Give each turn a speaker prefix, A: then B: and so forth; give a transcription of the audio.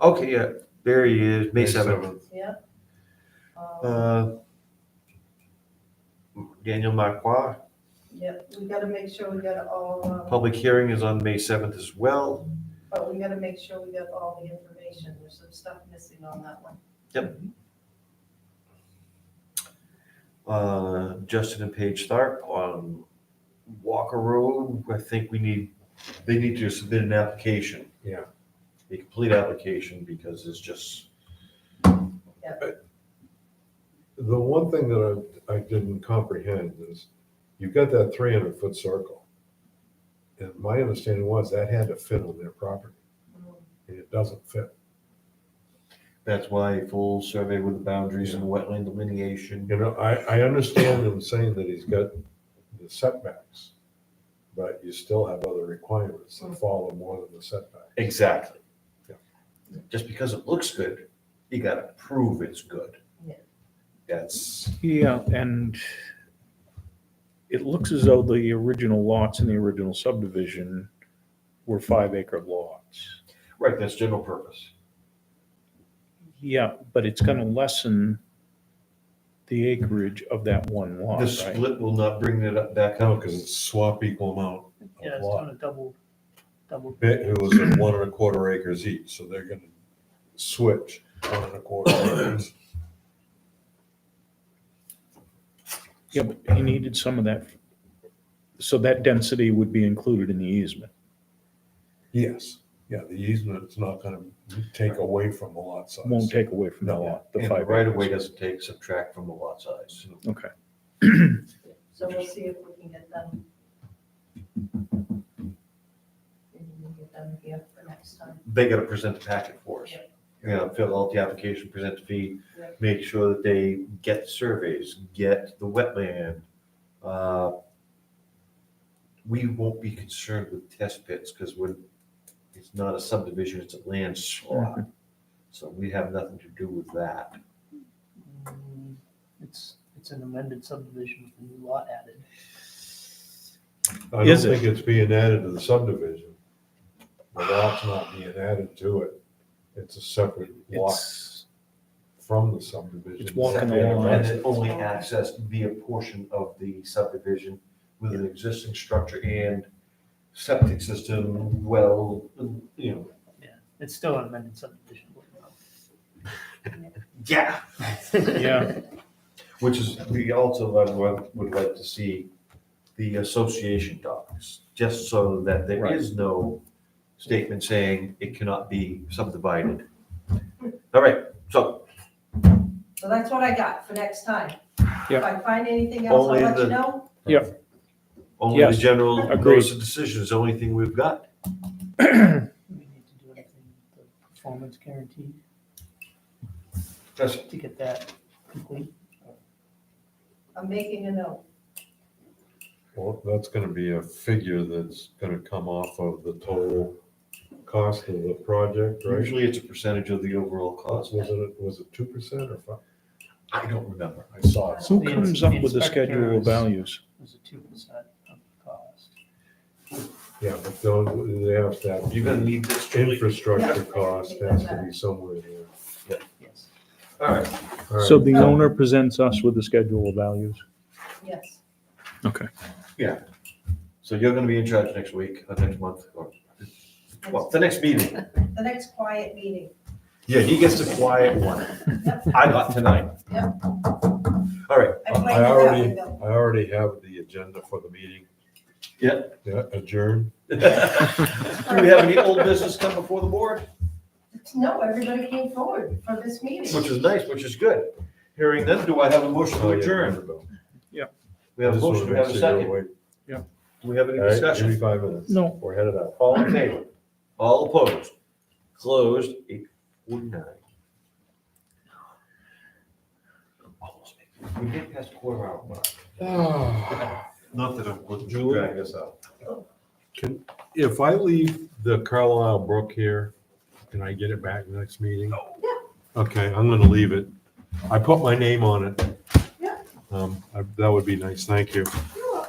A: Okay, yeah, there he is, May
B: May
A: seventh.
B: seventh.
C: Yep. Um,
A: Uh, Daniel Marquardt,
C: Yep, we gotta make sure we got all, um,
A: public hearing is on May seventh as well.
C: but we gotta make sure we got all the information. There's some stuff missing on that one.
A: Uh, Justin and Paige Tharp on Walker Road, I think we need, they need to submit an application.
B: Yeah.
A: A complete application because it's just,
B: The one thing that I, I didn't comprehend is you've got that three hundred foot circle. And my understanding was that had to fit on their property and it doesn't fit.
A: that's why a full survey with the boundaries and wetland delineation.
B: You know, I, I understand him saying that he's got the setbacks, but you still have other requirements that follow more than the setback.
A: Exactly.
B: Yeah.
A: Just because it looks good, you gotta prove it's good.
C: Yeah.
A: That's.
D: Yeah, and it looks as though the original lots in the original subdivision were five acre lots.
A: Right, that's general purpose.
D: Yeah, but it's gonna lessen the acreage of that one lot,
A: The
D: right?
A: split will not bring it up back
B: No,
A: up
B: because it's swap equal amount
E: Yeah,
B: of
E: it's
B: lot.
E: kind of double, double.
B: It it was at one and a quarter acres each, so they're gonna switch one and a quarter acres.
D: Yeah, but he needed some of that, so that density would be included in the easement.
B: Yes, yeah, the easement's not gonna take away from the lot size.
D: Won't take away from the
B: No,
D: lot, the
A: and the
D: five
A: right of way
D: acres.
A: doesn't take subtract from the lot size.
D: Okay,
C: So we'll see if we can get them. Maybe we can get them here for next time.
A: They gotta present the packet for us.
C: Yeah.
A: You know, fill out the application, present the fee,
C: Yeah.
A: make sure that they get surveys, get the wetland. Uh, We won't be concerned with test pits because we're, it's not a subdivision, it's a land slot.
D: Mm-hmm.
A: So we have nothing to do with that.
E: Mm, It's, it's an amended subdivision with a new lot added.
B: I don't
D: Is it?
B: think it's being added to the subdivision. The lot's not being added to it. It's a separate lot
D: it's,
B: from the subdivision.
D: It's walking the line.
A: And it only accessed via portion of the subdivision with an existing structure and septic system, well, you know.
E: It's still an amended subdivision.
A: Yeah.
D: yeah,
A: Which is, we also would like- would like to see the association docs, just so that there
D: Right.
A: is no statement saying it cannot be subdivided. All right, so
C: So that's what I got for next time. If
D: Yep.
C: I find anything else, I'll
A: Only
C: let
A: the-
C: you know.
A: only the
D: Yes,
A: general,
D: agreed.
A: notice of decision is the only thing we've got.
E: Do we need to do anything with the performance guarantee
A: That's-
E: to get that complete?
C: I'm making a note.
B: Well, that's gonna be a figure that's gonna come off of the total cost of the project, right?
A: Usually it's a percentage of the overall cost.
B: Was it, was it two percent or five?
A: I don't remember.
B: I saw it.
D: who
E: The
D: comes up with the
E: inspector
D: schedule of
E: is-
D: values?
E: It was a two percent of the cost.
B: Yeah, but don't, they have to have.
A: You're gonna need this.
B: Infrastructure cost has to be somewhere there.
E: Yes.
A: All right,
B: All right.
D: So the owner presents us with the schedule of values.
C: Yes.
D: Okay,
A: so you're gonna be in charge next week, or next month, or, well, the next meeting.
C: The next quiet meeting.
A: Yeah, he gets the quiet one.
C: Yep,
A: I got tonight.
C: Yeah.
A: All right,
C: I
B: I
C: played that
B: already-
C: one though.
B: I already have the agenda for the meeting.
A: yeah.
B: Yeah, adjourn.
A: Do we have any old business come before the board?
C: No, everybody came forward for this
A: Which
C: meeting.
A: is nice, which is good. Hearing none, do I have a motion to
B: Oh, yeah,
A: adjourn?
B: Annabelle.
A: We have a
B: Just wanna
A: motion, we have
B: make
A: a
B: sure you're
A: second.
B: awake.
A: Do we have any
B: All right, give me
A: discussion?
B: five minutes.
D: No.
B: We're headed out.
A: All in favor? All opposed? Closed, eight forty-nine. Almost made it. We did pass the quarter hour mark. Ah. Not that I'm looking to
B: Julie?
A: drag this out.
B: Can, if I leave the Carlisle Brook here, can I get it back next meeting?
C: Yeah.
B: Okay, I'm gonna leave it. I put my name on it.
C: Yeah.
B: Um, I- that would be nice, thank you.
C: Yeah.